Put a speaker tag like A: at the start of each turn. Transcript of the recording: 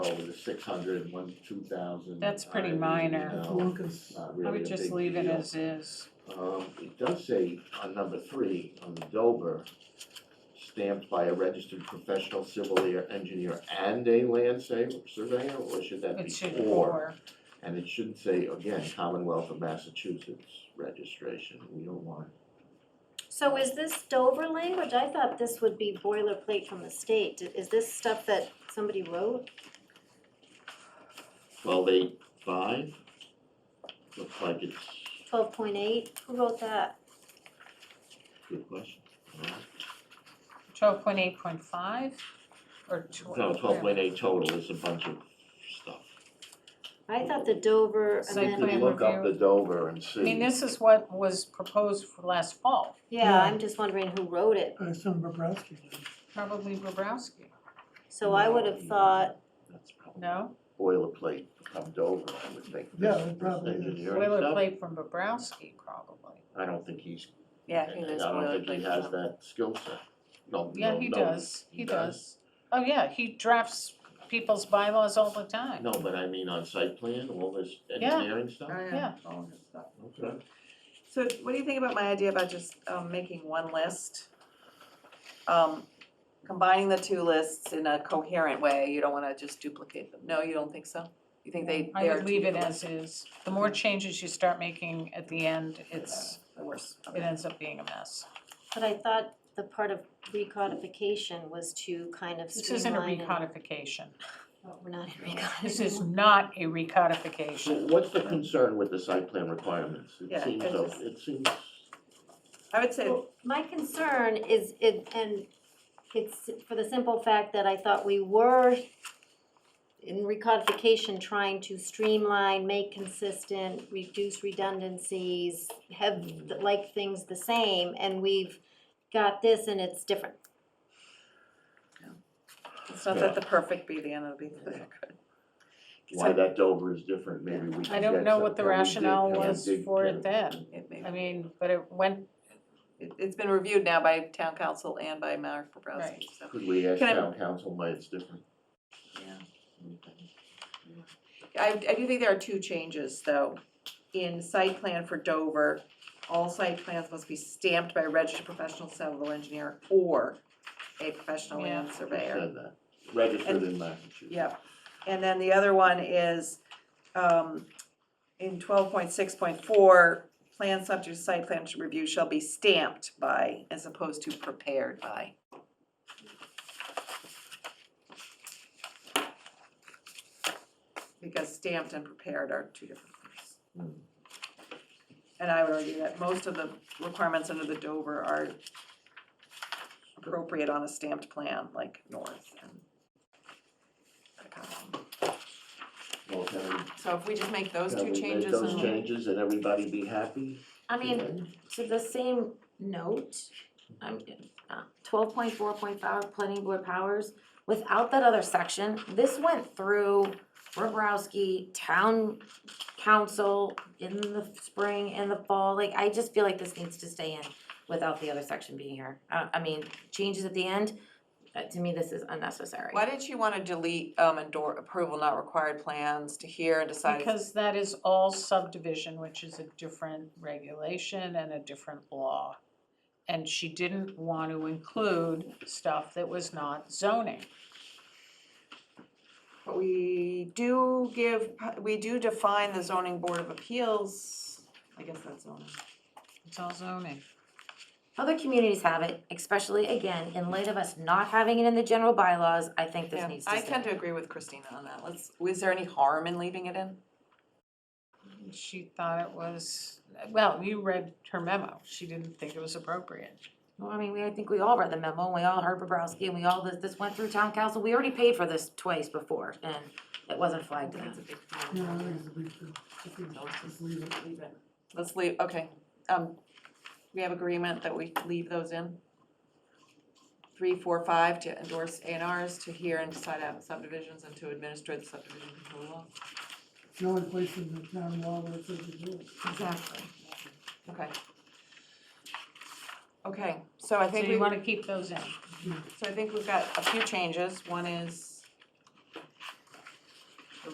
A: Oh, there's six hundred, one's two thousand.
B: That's pretty minor.
A: No, it's
C: uh,
A: not
B: I
A: really a
B: would just
A: big
B: leave it
A: deal.
B: as is.
A: Um, it does say on number three, on the Dover, stamped by a registered professional civil air engineer and a land sa- surveyor, or should that be
B: It should
A: or?
B: or,
A: And it should say, again, Commonwealth of Massachusetts registration, we don't want,
D: So is this Dover language? I thought this would be boilerplate from the state. Did- Is this stuff that somebody wrote?
A: twelve eight five? Looks like it's,
D: Twelve point eight? Who wrote that?
A: good question. Uh,
B: twelve point eight point five, or twelve.
A: No, twelve point eight total is a bunch of stuff.
D: I thought the Dover
B: Site
A: You
B: plan
A: could
D: amendment,
A: look up
B: review.
A: the Dover and see.
B: I mean, this is what was proposed for last fall,
D: yeah, I'm just wondering who wrote it.
C: Uh, some Bobrowski did.
B: probably Bobrowski,
D: So I would have thought,
A: That's probably
B: no?
A: boilerplate from Dover, I would think.
C: Yeah,
A: This-
C: it probably
A: this
C: is.
A: engineering stuff,
B: Boilerplate from Bobrowski, probably.
A: I don't think he's, I
E: Yeah, he was
A: don't think he has that skill set. No,
B: Yeah,
A: no,
B: he
A: no.
B: does,
A: he
B: he does. Oh, yeah, he drafts people's bylaws all the time.
A: No, but I mean on site plan, all this
B: Yeah.
A: engineering stuff?
B: Oh, Yeah.
E: all his stuff.
A: Okay.
E: So what do you think about my idea about just um making one list? Um, combining the two lists in a coherent way, you don't wanna just duplicate them, no, you don't think so? You think they
B: I
E: they are
B: would
E: two
B: leave it
E: different-
B: as is. The more changes you start making at the end, it's,
E: The worst,
B: it
E: okay,
B: ends up being a mess.
D: but I thought the part of recodification was to kind of
B: This isn't a
D: streamline. and-
B: recodification.
D: Oh, We're not in recodification.
B: This is not a
A: So
B: recodification.
A: what's the concern with the site plan requirements? It
E: Yeah,
A: seems,
E: it's
A: so-
E: just-
A: it seems,
E: I would say,
D: Well, My concern is it, and it's for the simple fact that I thought we were in recodification, trying to streamline, make consistent, reduce redundancies, have, like things the same, and we've got this and it's different.
E: it's not that the perfect be the end of the,
A: why that Dover is different, maybe we can
B: I don't
A: get
B: know
A: some-
B: what the
A: can we dig-
B: rationale
A: can we
B: was
A: dig-
B: for
A: can-
B: it then.
E: It may,
B: I mean, but it went,
E: it it's been reviewed now by town council and by Mark
B: Right.
E: Bobrowski, so.
A: Could we ask
E: Can I-
A: town council why it's different?
E: I, I do think there are two changes, though. In site plan for Dover, all site plans must be stamped by a registered professional civil engineer or a professional land
A: Who
E: surveyor.
A: said that? Registered in Massachusetts.
E: Yep, and then the other one is, um, in twelve point six point four, plan subject to site plan review shall be stamped by, as opposed to prepared by. Because stamped and prepared are two different things.
A: Hmm.
E: And I would argue that most of the requirements under the Dover are appropriate on a stamped plan, like North and.
A: Well, can we
E: So if we just make those
A: Can we
E: two
A: make
E: changes
A: those
E: and-
A: changes and everybody be happy?
F: I mean, to the same note, I'm, uh, twelve point four point five, planning board powers, without that other section, this went through Bobrowski, town council in the spring and the fall, like, I just feel like this needs to stay in without the other section being here. I, I mean, changes at the end, uh, to me, this is unnecessary.
E: why did you wanna delete um endor approval not required plans to hear and decide?
B: because that is all subdivision, which is a different regulation and a different law. And she didn't want to include stuff that was not zoning.
E: But we do give, we do define the zoning board of appeals, I guess that's zoning.
B: It's all zoning.
F: Other communities have it, especially, again, in light of us not having it in the general bylaws, I think this
E: Yeah,
F: needs to stay.
E: I tend to agree with Christina on that, let's, is there any harm in leaving it in?
B: She thought it was, well, you read her memo. She didn't think it was appropriate.
F: Well, I mean, we, I think we all read the memo, and we all heard Bobrowski, and we all, this, this went through town council, we already paid for this twice before, and it wasn't flagged then.
C: You know, I think it's a big deal. I think just leave it.
E: Let's leave, okay, um, we have agreement that we leave those in? Three, four, five to endorse A and Rs, to hear and decide out subdivisions, and to administer the subdivision control law,
C: It's the only place in the town law where it says you do it.
F: Exactly.
E: okay. Okay, so I
B: So
E: think we,
B: you
E: so
B: wanna keep those in?
E: I think we've got a few changes, one is